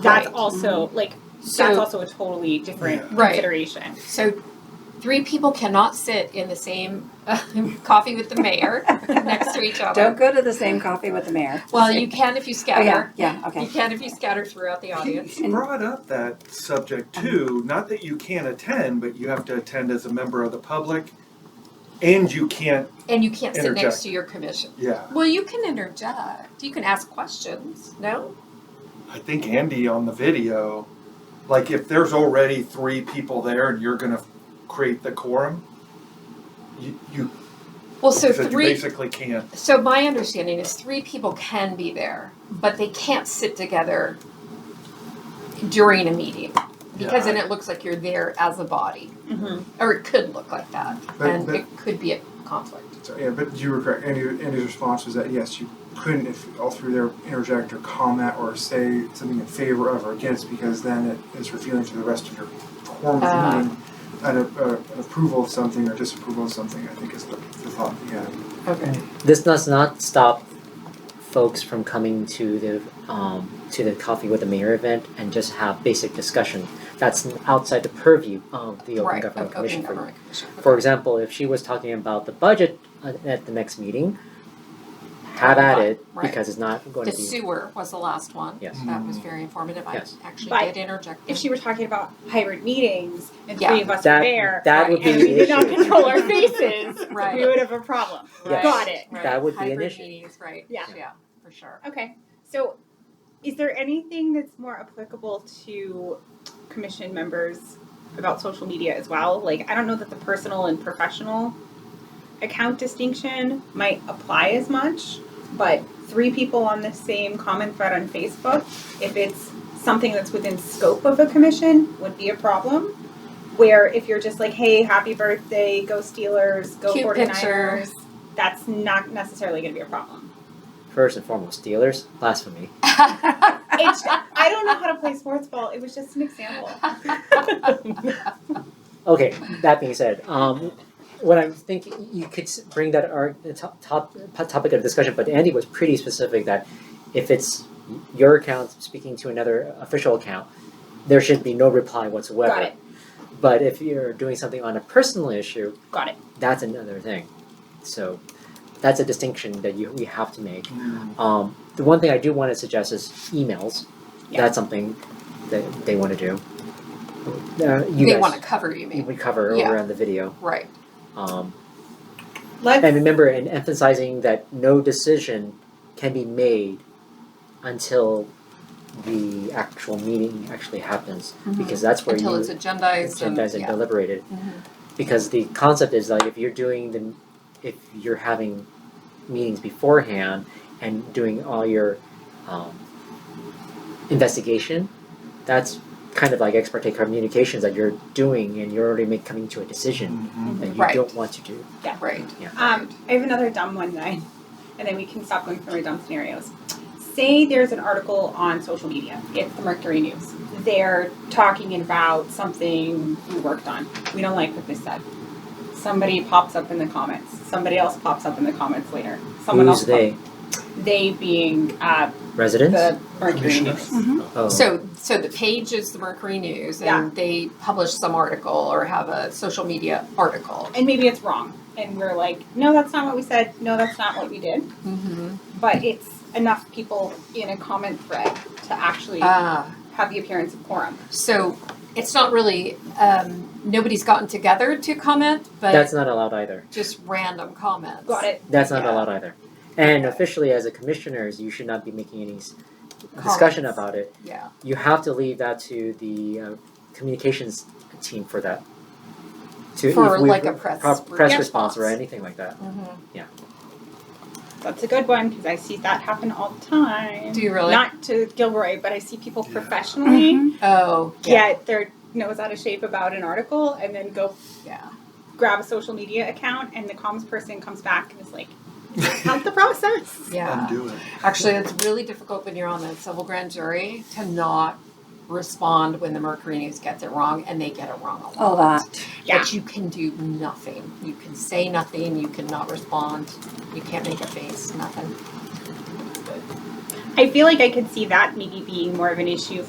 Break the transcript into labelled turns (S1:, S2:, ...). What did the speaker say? S1: that's
S2: Right.
S1: also like that's
S2: So,
S1: also a totally different
S2: Right.
S1: consideration.
S2: so three people cannot sit in the same uh, coffee with the mayor next to each other.
S3: Don't go to the same coffee with the mayor.
S2: Well, you can if you
S3: Oh, yeah,
S2: scatter.
S3: yeah,
S2: You
S3: okay.
S2: can if you scatter throughout the audience.
S4: You brought up that subject
S2: Um,
S4: too, not that you can't attend, but you have to attend as a member of the public and you can't,
S2: And you can't sit next
S4: Interject.
S2: to your commission.
S4: yeah.
S2: Well, you can interject. You can ask questions. No?
S4: I think Andy on the video, like if there's already three people there and you're gonna create the quorum, you, you,
S2: Well, so
S4: you
S2: three.
S4: basically can't.
S2: So my understanding is three people can be there, but they can't sit together during a meeting because then it looks like you're there as a body,
S1: Mhm.
S2: or it could look like that,
S5: But-
S2: and
S5: but-
S2: it could be a conflict.
S5: So, yeah, but you were correct. Andy, Andy's response was that yes, you couldn't if all through there interject or comment or say something in favor of or against because then it is revealing to the rest of your quorum of
S2: Ah.
S5: the meeting an, a, an approval of something or disapproval of something. I think is the, the thought. Yeah.
S2: Okay.
S6: This does not stop folks from coming to the um, to the coffee with the mayor event and just have basic discussion. That's outside the purview of the Open
S2: right.
S6: Government
S2: of
S6: Commission.
S2: Open
S6: for-
S2: Government Commission.
S6: For example, if she was talking about the budget uh, at the next meeting, have at it
S2: Right.
S6: because it's not going
S2: the
S6: to be.
S2: sewer was the last one.
S6: Yes.
S2: That was very informative.
S6: Yes.
S2: I actually
S1: But
S2: did interject.
S1: If she were talking about hybrid meetings and
S2: Yeah.
S1: three of us
S6: That
S1: were there
S6: that would
S2: right,
S6: be
S1: and
S6: the
S1: we did not
S6: issue.
S1: control our faces,
S2: Right.
S1: we would have a problem.
S6: Yes.
S1: Got it.
S2: Right.
S6: That would be an
S2: Hybrid
S6: issue.
S2: meetings, right.
S1: Yeah.
S2: Yeah, for sure.
S1: Okay. So, is there anything that's more applicable to commission members about social media as well? Like, I don't know that the personal and professional account distinction might apply as much, but three people on the same common thread on Facebook, if it's something that's within scope of a commission, would be a problem. Where if you're just like, hey, happy birthday, go Steelers, go
S2: Cute
S1: 49ers,
S2: picture.
S1: that's not necessarily going to be a problem.
S6: First and foremost, dealers, blasphemy.
S1: It's, I don't know how to play sports ball. It was just an example.
S6: Okay, that being said, um, what I'm thinking, you could s- bring that our top, top topic of discussion, but Andy was pretty specific that if it's your account speaking to another official account, there should be no reply whatsoever.
S1: Got it.
S6: But if you're doing something on a personal issue,
S1: Got it.
S6: that's another thing. So that's a distinction that you we have to make. Um, the one thing I do want to suggest is emails.
S1: Yeah.
S6: That's something that they want to do. Uh, you
S2: they
S6: guys,
S2: want to cover you,
S6: we
S2: mean?
S6: would cover
S2: Yeah.
S6: over on the video.
S2: Right.
S6: Um,
S1: Let's
S6: and remember, and emphasizing that no decision can be made until the actual meeting actually happens, because that's where
S2: Mm-hmm. Until
S6: you
S2: it's agendized and,
S6: agendas are
S2: yeah.
S6: deliberated.
S2: Mhm.
S6: Because the concept is like if you're doing the, if you're having meetings beforehand and doing all your um, investigation, that's kind of like ex parte communications that you're doing, and you're already make, coming to a decision
S4: Mm-hmm.
S6: that you
S2: Right.
S6: don't want to do.
S2: Right.
S1: Um, I have another dumb one that I, and then we can stop going through our dumb scenarios. Say there's an article on social media. It's the Mercury News. They're talking about something we worked on. We don't like what they said. Somebody pops up in the comments. Somebody else pops up in the comments later. Someone
S6: Who's
S1: else.
S6: they?
S1: pop- they being uh,
S6: Residents?
S1: the Mercury
S4: Commissioners.
S1: News.
S6: Oh.
S2: So, so the page is the Mercury News, and
S1: Yeah.
S2: they publish some article or have a social media article.
S1: And maybe it's wrong. And we're like, no, that's not what we said. No, that's not what we did.
S2: Mm-hmm.
S1: but it's enough people in a common thread to actually
S2: Uh,
S1: have the appearance of quorum.
S2: so it's not really um, nobody's gotten together to comment, but
S6: That's not allowed either.
S2: just random comments.
S1: Got it?
S6: That's not
S2: Yeah.
S6: allowed either. And officially, as a commissioners, you should not be making any s- discussion
S2: Comments.
S6: about it.
S2: Yeah.
S6: You have to leave that to the uh, communications team for that. To
S2: For
S6: if we-
S2: like a press
S6: pro- press
S2: response.
S6: response or anything like that.
S2: Mhm.
S1: That's a good one because I see that happen all the time.
S2: Do you really?
S1: Not to Gilroy, but I see people
S4: Yeah.
S1: professionally
S2: Oh. Yeah.
S1: get their nose out of shape about an article and then go
S2: Yeah.
S1: grab a social media account and the comms person comes back and is like, how's the process?
S2: Yeah.
S4: Undo it.
S2: Actually, it's really difficult when you're on the civil grand jury to not respond when the Mercury News gets it wrong, and they get it wrong a lot.
S3: Oh, that.
S1: Yeah.
S2: But you can do nothing. You can say nothing. You cannot respond. You can't make a face. Nothing.
S1: I feel like I could see that maybe being more of an issue